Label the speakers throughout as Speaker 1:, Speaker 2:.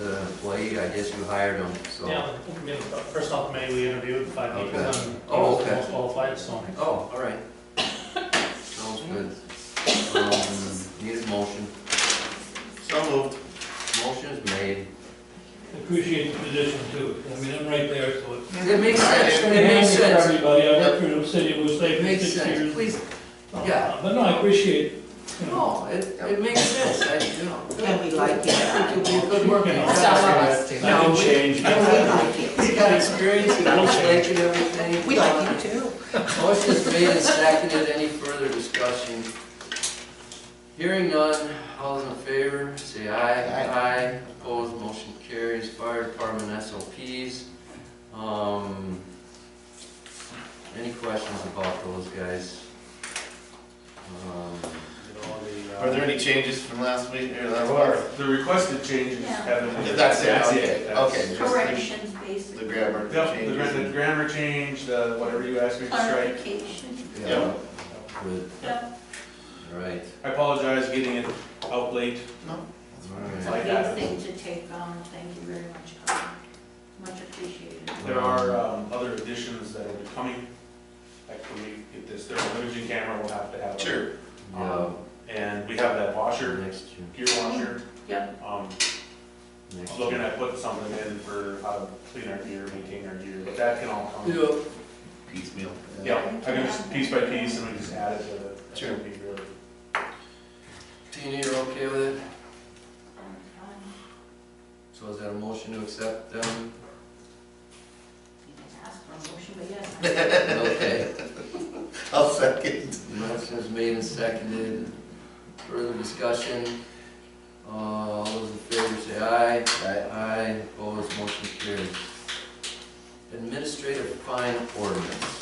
Speaker 1: employee, I guess you hired him, so.
Speaker 2: Yeah, I mean, first off, May, we interviewed five people,
Speaker 1: Okay.
Speaker 2: and
Speaker 1: Oh,
Speaker 2: most
Speaker 1: okay.
Speaker 2: most qualified, so.
Speaker 1: Oh, all right. Sounds good. Um, Need a motion. So moved. Motion is made.
Speaker 3: Appreciate the position too, I mean, I'm right there, so. it's-
Speaker 1: It makes sense, it makes
Speaker 3: Thank you for
Speaker 1: sense.
Speaker 3: Everybody, I
Speaker 1: Yep.
Speaker 3: worked for the city of Blue Lake
Speaker 1: It
Speaker 3: for
Speaker 1: makes
Speaker 3: six
Speaker 1: sense,
Speaker 3: years.
Speaker 1: please,
Speaker 3: Uh,
Speaker 1: yeah.
Speaker 3: But no, I appreciate, you know,
Speaker 1: no, it, it makes sense, I, you know.
Speaker 4: And we like it.
Speaker 1: I think you'll be a good worker.
Speaker 3: Some
Speaker 4: of us do.
Speaker 3: I
Speaker 1: Now,
Speaker 3: can
Speaker 1: we-
Speaker 3: change.
Speaker 4: And we like
Speaker 1: He's
Speaker 4: it.
Speaker 1: got experience, he looks like and everything.
Speaker 4: We like it too.
Speaker 1: Motion is made and seconded, any further discussion? Hearing none, all those in favor, say aye. Aye. Opposed, motion carries, fire department SOPs. Um, Any questions about those guys? Um,
Speaker 5: Are there any changes from last week or last month?
Speaker 6: The requested changes
Speaker 7: Yeah.
Speaker 6: haven't. been-
Speaker 5: That's it, okay,
Speaker 6: That's-
Speaker 5: okay. just the-
Speaker 7: Corrections,
Speaker 5: The
Speaker 7: basically.
Speaker 5: grammar
Speaker 6: Yep, the gra- the
Speaker 5: changes.
Speaker 6: grammar change, the whatever you asked me to strike.
Speaker 7: Clarification.
Speaker 5: Yeah.
Speaker 1: Good,
Speaker 7: Yep.
Speaker 1: all right,
Speaker 6: I apologize getting it out late.
Speaker 1: all right.
Speaker 7: It's a
Speaker 6: Like
Speaker 7: big
Speaker 6: that.
Speaker 7: thing to take on. Thank you very much, Colin. Much appreciated.
Speaker 6: There are um, other additions that will be coming. Like when we get this thermal camera, we'll have to have. it.
Speaker 5: Sure.
Speaker 1: Yeah,
Speaker 6: And we have that washer,
Speaker 1: next year,
Speaker 6: gear washer.
Speaker 7: Yep.
Speaker 6: Um,
Speaker 1: next
Speaker 6: I'm
Speaker 1: year.
Speaker 6: looking at putting something in for how to clean our gear, maintain our gear, but that can all come.
Speaker 1: Yeah.
Speaker 5: Piecemeal.
Speaker 6: Yeah, I can just piece by piece and we just add it to the.
Speaker 5: Sure.
Speaker 6: It'll be really-
Speaker 1: Tina, you're okay with it?
Speaker 7: You
Speaker 1: So is that a motion to accept them?
Speaker 7: didn't ask for a motion, but yes.
Speaker 1: Okay.
Speaker 5: I'll second.
Speaker 1: Motion is made and seconded. Further discussion? Uh, All those in favor say aye.
Speaker 5: Aye.
Speaker 1: Aye, opposed, motion carries. Administrative fine ordinance.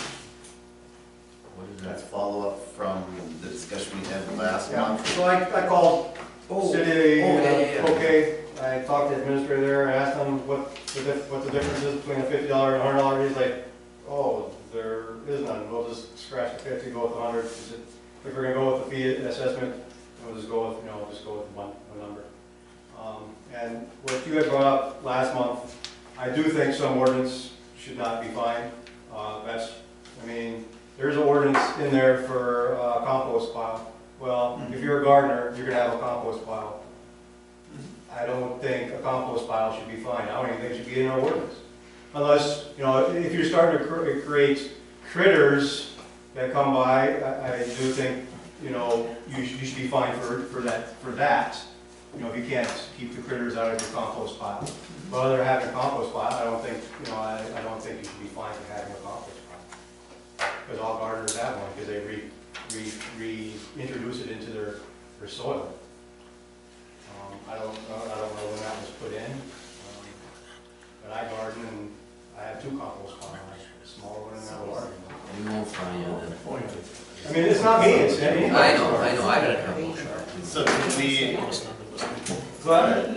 Speaker 1: What is
Speaker 5: That's
Speaker 1: that?
Speaker 5: follow-up from the discussion we had last
Speaker 8: Yeah,
Speaker 5: month.
Speaker 8: so I, I called
Speaker 1: Oh,
Speaker 8: city,
Speaker 1: oh, yeah, yeah, yeah.
Speaker 8: uh, okay, I talked to the administrator there, I asked him what the diff, what the difference is between a fifty dollar and a hundred dollar, he's like, oh, there is none, we'll just scratch the fifty, go with the hundred, He said, if we're gonna go with the fee assessment, we'll just go with, you know, we'll just go with one, one number. Um, and what you had brought up last month, I do think some ordinance should not be fined, uh, that's, I mean, there's an ordinance in there for, uh, compost pile, well, if you're a gardener, you're gonna have a compost pile. I don't think a compost pile should be fined, I don't even think it should be in our ordinance. Unless, you know, if you're starting to cr- create critters that come by, I, I do think, you know, you should, you should be fined for, for that, for that. You know, if you can't keep the critters out of your compost pile. But other than having a compost pile, I don't think, you know, I, I don't think you should be fined for having a compost pile. Because all gardeners have one, because they re, re, reintroduce it into their, their soil. Um, I don't, know- I don't know when that was put in, um, but I garden and I have two compost piles, a small one and a large one.
Speaker 1: We won't find you then.
Speaker 8: I mean, it's not me, it's any.
Speaker 1: I know, I know, I gotta come.
Speaker 5: So did we,
Speaker 8: But,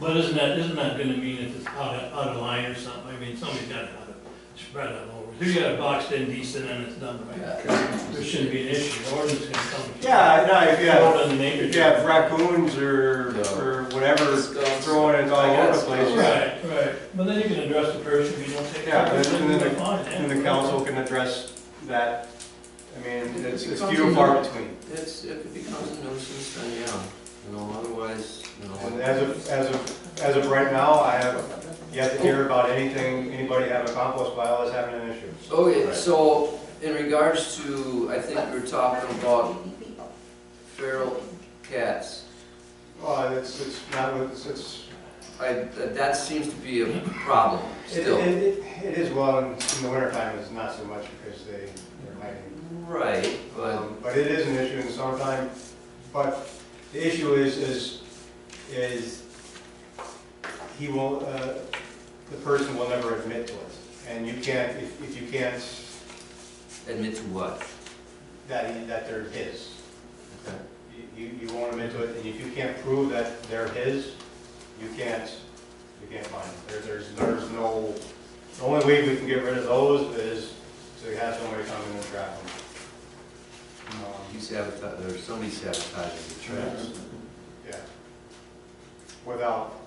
Speaker 3: But isn't that, isn't that gonna mean if it's out of, out of line or something, I mean, somebody's gotta have it spread out over. If you got it boxed in decent and it's done right, there shouldn't be an issue, the ordinance can come.
Speaker 8: yeah, no, if you have,
Speaker 3: Out of the neighborhood.
Speaker 8: if you have raccoons or,
Speaker 1: Yeah.
Speaker 8: or whatever
Speaker 1: Discuss.
Speaker 8: throwing it all over the place,
Speaker 3: Right, right, but then you can address the person, you don't take.
Speaker 8: Yeah, but
Speaker 3: then
Speaker 8: then the-
Speaker 3: fine, yeah.
Speaker 8: and the council can address that. I mean, it's, it's
Speaker 1: Becomes
Speaker 8: few
Speaker 1: a
Speaker 8: and far between.
Speaker 1: It's, if it becomes a nuisance, then yeah, you know, otherwise, you
Speaker 8: And
Speaker 1: know.
Speaker 8: as of, as of, as of right now, I have yet to hear about anything, anybody having a compost pile that's having an issue.
Speaker 1: Okay, Oh, so in regards to, I think we we're talking about
Speaker 7: People.
Speaker 1: feral cats.
Speaker 8: Well, it's, it's not, what- it's, it's,
Speaker 1: I, that that seems to be a problem
Speaker 8: it,
Speaker 1: still.
Speaker 8: it, it is well, in in the wintertime, it's not so much because they, they're hiding.
Speaker 1: Right, but,
Speaker 8: Um, But it is an issue in summertime, but the issue is, is, is he will, uh, the person will never admit to it. And you can't, if, if you can't,
Speaker 1: admit to what?
Speaker 8: that, he- that they're his.
Speaker 1: Okay.
Speaker 8: you, you won't admit to it, and if you can't prove that they're his, you can't, you can't find them. There, there's, there's no, the only way we can get rid of those is to have somebody come in and trap them.
Speaker 1: You
Speaker 8: Um,
Speaker 1: sabotage, or somebody sabotaging the traps.
Speaker 8: Yeah. Without,